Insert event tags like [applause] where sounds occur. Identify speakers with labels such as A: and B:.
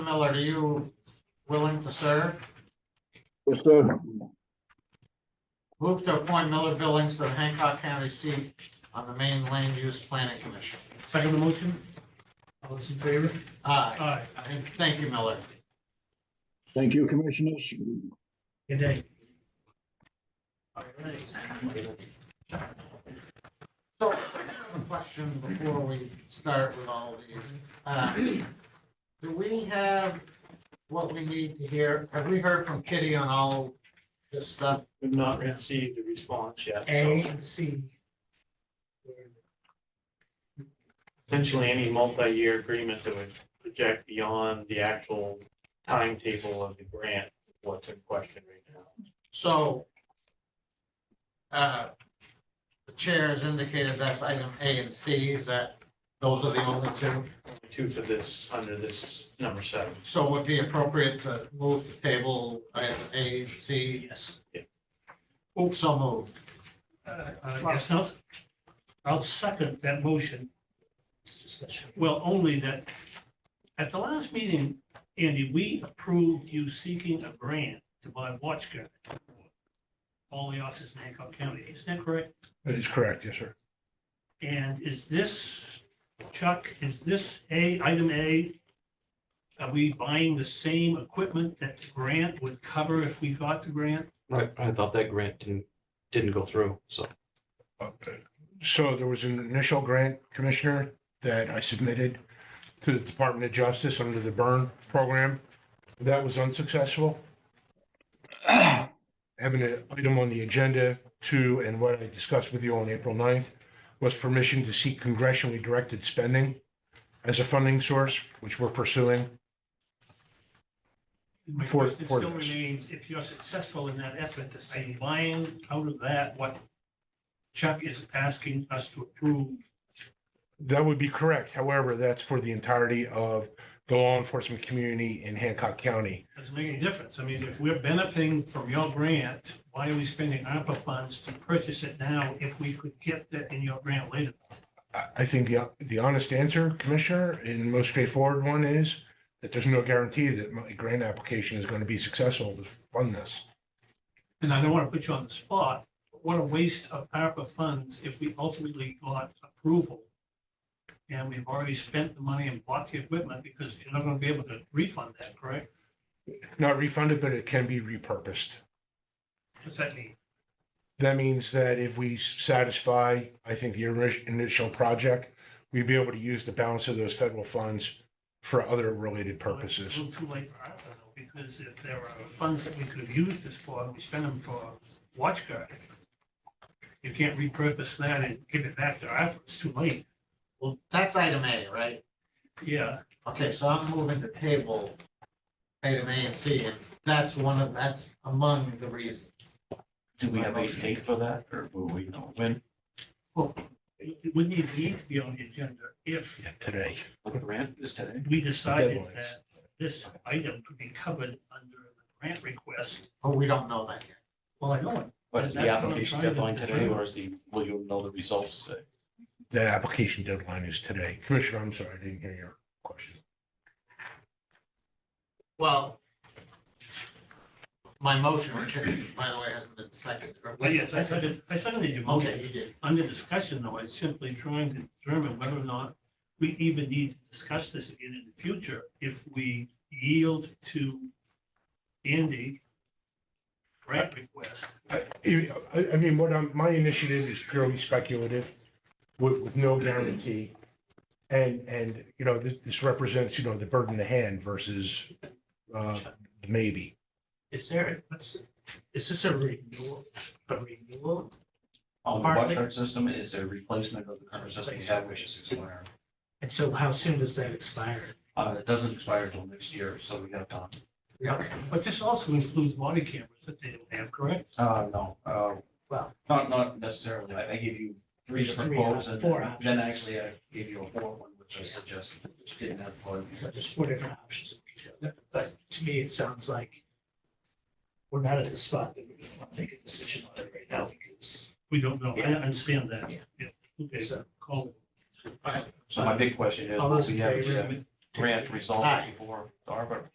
A: Miller, are you willing to serve?
B: Yes, sir.
A: Move to appoint Miller Billings to the Hancock County seat on the Maine Land Use Planning Commission.
C: Second the motion? All those in favor?
A: Aye,
C: Aye.
A: and thank you, Miller.
B: Thank you, commissioners.
C: Good day.
A: So, I have a question before we start with all of these. Uh, Do we have what we need to hear? Have we heard from Kitty on all this stuff?
D: We've not received a response yet,
C: A
D: so
C: and C.
D: essentially any multi-year agreement that would project beyond the actual timetable of the grant, is what's in question right now.
A: So uh, the chair has indicated that's item A and C, is that, those are the only two?
D: Only Two for this, under this number seven.
A: So would it be appropriate to move the table item A and C?
C: Yes.
A: Oops, so moved.
C: Uh, yes, I'll, I'll second that motion. Well, only that, at the last meeting, Andy, we approved you seeking a grant to buy watch guard. for All the offices in Hancock County, is that correct?
E: That is correct, yes, sir.
C: And is this, Chuck, is this A, item A? Are we buying the same equipment that the grant would cover if we got the grant?
F: Right, I thought that grant didn't, didn't go through, so.
E: So there was an initial grant commissioner that I submitted to the Department of Justice under the burn program. That was unsuccessful. [clears throat] Having an item on the agenda to, and what I discussed with you on April 9th, was permission to seek congressionally directed spending as a funding source, which we're pursuing.
C: My
E: For-
C: question
E: for
C: still
E: this.
C: remains, if you're successful in that effort, are you buying out of that what Chuck is asking us to approve?
E: That would be correct. However, that's for the entirety of the law enforcement community in Hancock County.
C: Doesn't make any difference. I mean, if we're benefiting from your grant, why are we spending ARPA funds to purchase it now if we could get that in your grant later?
E: I I think the, the honest answer, Commissioner, and the most straightforward one is that there's no guarantee that my grant application is going to be successful to fund this.
C: And I don't want to put you on the spot, but what a waste of ARPA funds if we ultimately got approval. And we've already spent the money and bought the equipment because you're not going to be able to refund that, correct?
E: Not refunded, but it can be repurposed.
C: What's that mean?
E: That means that if we satisfy, I think, the orig- initial project, we'd be able to use the balance of those federal funds for other related
C: Well, it's
E: purposes.
C: A little too late for ARPA though, because if there are funds that we could have used this for, we spend them for watch guard. You can't repurpose that and give it back to ARPA, it's too late.
A: Well, that's item A, right?
C: Yeah,
A: Okay, so I'm moving to table item A and C, and that's one of, that's among the reasons.
G: Do we have a date for that, or will we know when?
C: it it wouldn't even need to be on the agenda if
E: Today.
G: The grant is today.
C: we decided
E: Deadlines.
C: that this item could be covered under the grant request.
A: But we don't know that yet.
C: Well, I know it.
G: But is the
C: That's what I'm
G: application
C: trying to
G: deadline today,
C: determine.
G: or is the, will you know the results today?
E: The application deadline is today. Commissioner, I'm sorry, I didn't hear your question.
A: Well, my motion, which by the way hasn't been seconded. or-
C: Well, yes, I said it, I suddenly did motion.
A: Okay, you did.
C: under discussion, though, is simply trying to determine whether or not we even need to discuss this again in the future if we yield to Andy grant request.
E: I, I I mean, what I'm, my initiative is purely speculative with, with no guarantee. And, and, you know, this, this represents, you know, the bird in the hand versus, uh, the maybe.
H: Is there, what's, is this a renewal, a renewal?
G: On
C: Uh,
H: the Partly. watchdog
G: system is a replacement of the current
H: system we have, which
G: is expiring.
H: And so how soon does that expire?
G: Uh, it doesn't expire until next year, so we have time.
C: But this also includes body cameras that they don't have, correct?
G: Uh, no, uh,
H: Well-
G: not, not necessarily. I, I gave you three
H: There's
G: different
H: three
G: quotes
H: op-
G: and
H: four
G: then- then
H: options.
G: actually I gave you a fourth one, which I suggested, which didn't have. quote.
H: So there's four different options. But to me, it sounds like we're not at the spot that we're gonna make a decision on it right now because.
C: We don't know. I
H: Yeah.
C: understand that.
H: Yeah.
C: Yeah. Okay,
H: So-
C: call it.
G: So my big question is,
H: All
G: will
H: those
G: we
H: in
G: have,
H: favor?
G: a-
D: grant results before the ARPA